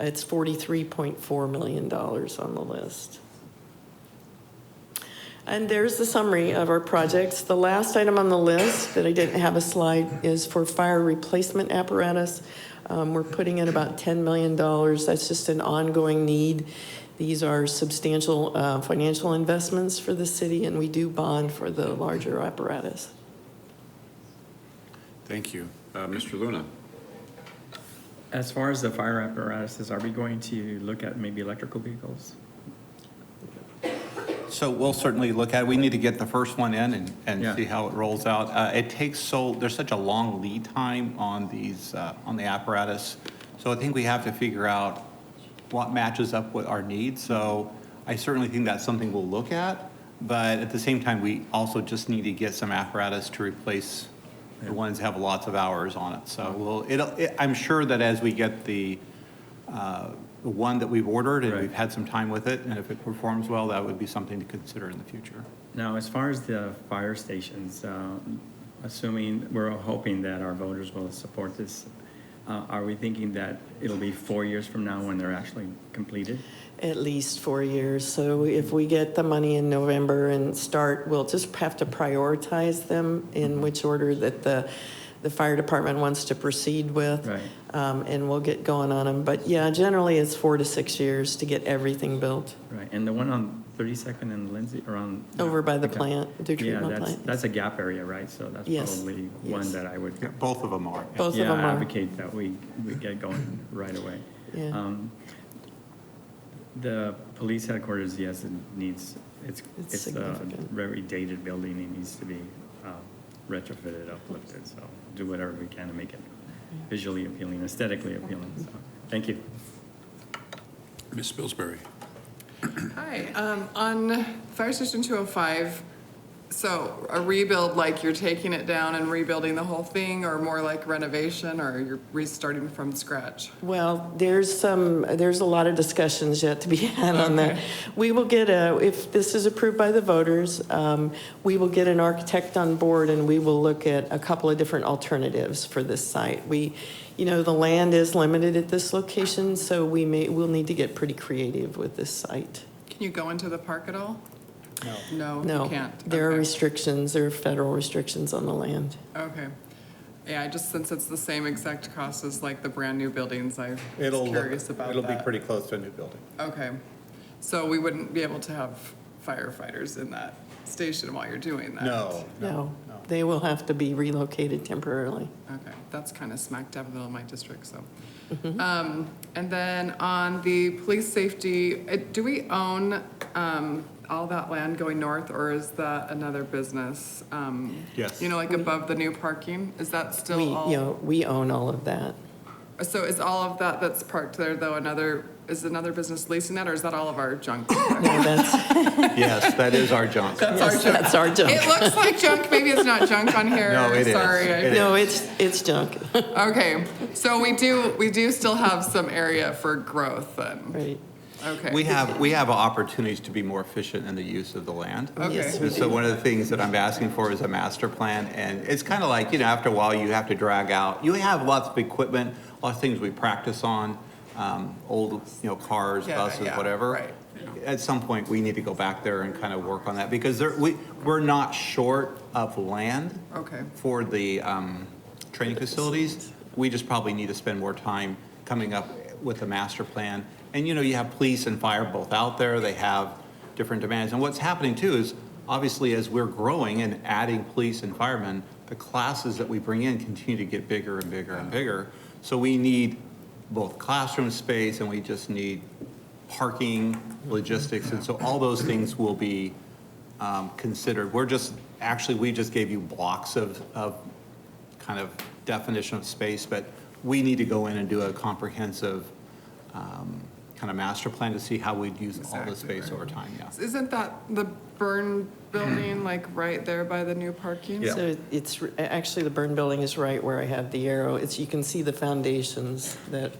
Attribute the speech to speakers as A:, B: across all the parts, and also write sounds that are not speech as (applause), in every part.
A: It's $43.4 million on the list. And there's the summary of our projects. The last item on the list that I didn't have a slide is for fire replacement apparatus. Um, We're putting in about $10 million. That's just an ongoing need. These are substantial uh, financial investments for the city, and we do bond for the larger apparatus.
B: Thank you. Uh, Mr. Luna?
C: As far as the fire apparatuses, are we going to look at maybe electrical vehicles?
D: So we'll certainly look at it. We need to get the first one in and, and
C: Yeah.
D: see how it rolls out. Uh, It takes so, there's such a long lead time on these, uh, on the apparatus. So I think we have to figure out what matches up with our needs. So I certainly think that's something we'll look at. But at the same time, we also just need to get some apparatus to replace the ones that have lots of hours on it. So we'll, it'll, it- I'm sure that as we get the, uh, the one that we've ordered, and
C: Right.
D: we've had some time with it, and if it performs well, that would be something to consider in the future.
C: Now, as far as the fire stations, uh, assuming, we're hoping that our voters will support this, uh, are we thinking that it'll be four years from now when they're actually completed?
A: At least four years. So if we get the money in November and start, we'll just have to prioritize them in which order that the, the fire department wants to proceed with.
C: Right.
A: Um, and we'll get going on them. But yeah, generally it's four to six years to get everything built
C: Right, and the one on 32nd and Lindsay, around?
A: over by the
C: Okay.
A: plant, dew
C: Yeah,
A: treatment
C: that's,
A: plant.
C: that's a gap area, right? So that's
A: Yes,
C: probably
A: yes.
C: one that I would
D: Yeah, Both of them are. yeah.
A: Both of
C: Yeah,
A: them are.
C: advocate that we, we get going right away.
A: Yeah.
C: Um, The police headquarters, yes, it needs, it's,
A: It's
C: it's a
A: significant.
C: very dated building, it needs to be um, retrofitted, uplifted, so do whatever we can to make it visually appealing, aesthetically appealing, so, thank you.
B: Ms. Spilsbury?
E: Hi, um, on Fire Station 205, so a rebuild, like you're taking it down and rebuilding the whole thing, or more like renovation, or you're restarting from scratch?
A: Well, there's some, there's a lot of discussions yet to be had on that. We will get a, if this is approved by the voters, um, we will get an architect on board and we will look at a couple of different alternatives for this site. We, you know, the land is limited at this location, so we may, we'll need to get pretty creative with this site.
E: Can you go into the park at all? No. No,
A: No,
E: you can't?
A: there are
E: Okay.
A: restrictions, there are federal restrictions on the land.
E: Okay. Yeah, I just, since it's the same exact cost as like the brand-new buildings, I was
D: It'll, look-
E: curious about
D: it'll be
E: that.
D: pretty close to a new building.
E: Okay, so we wouldn't be able to have firefighters in that station while you're doing that? (laughs)
D: No.
A: No, they will have to be relocated temporarily.
E: Okay, that's kind of smack dab in the middle of my district, so. Um, And then on the police safety, uh, do we own um, all that land going north, or is that another business? Um,
D: Yes.
E: You know, like above the new parking, is that
A: We,
E: still
A: you
E: all?
A: know, we own all of that.
E: So is all of that that's parked there, though, another, is another business leasing that, or is that all of
D: (coughs)
E: our junk?
A: No, that's,
D: Yes, that is our junk.
A: yes, that's our job.
E: It looks like junk, maybe it's not junk on here.
D: No, it is.
E: Sorry, I-
D: It is.
A: No, it's, it's junk, (laughs)
E: Okay, so we do, we do still have some area for growth, then,
A: right?
E: okay.
D: We have, we have opportunities to be more efficient in the use of the land.
E: Okay.
A: Yes, we
D: And so
A: do.
D: one of the things that I'm asking for is a master plan, and it's kind of like, you know, after a while, you have to drag out, you have lots of equipment, lots of things we practice on, um, old, you know, cars,
E: Yeah,
D: buses,
E: yeah,
D: whatever.
E: right.
D: At some point, we need to go back there and kind of work on that, because there, we, we're not short of land
E: Okay.
D: for the um, training facilities. We just probably need to spend more time coming up with a master plan. And, you know, you have police and fire both out there, they have different demands. And what's happening too is, obviously, as we're growing and adding police and firemen, the classes that we bring in continue to get bigger and bigger and bigger. So we need both classroom space and we just need parking, logistics. And so all those things will be um, considered. We're just, actually, we just gave you blocks of, of kind of definition of space, but we need to go in and do a comprehensive um, kind of master plan to see how we'd use all the space over time, yeah.
E: Isn't that the burn building, like, right there by the new parking?
A: So it's, r- actually, the burn building is right where I have the arrow. It's, you can see the foundations that,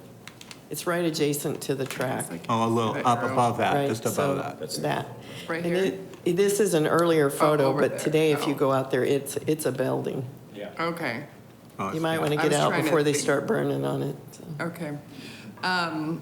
A: it's right adjacent to the track.
D: Oh, a little up above that,
A: Right,
D: just
A: so
D: above that.
A: That.
E: Right
A: And
E: here? Oh,
A: it- it- This is an earlier photo,
E: over
A: but
E: there.
A: today, if you
E: Oh.
A: go out there, it's, it's a building.
E: Okay,
D: Oh,
A: You might want to
E: I
A: get
E: was
A: out
E: trying to
A: before they
E: think.
A: start burning on it. so.
E: okay. Um,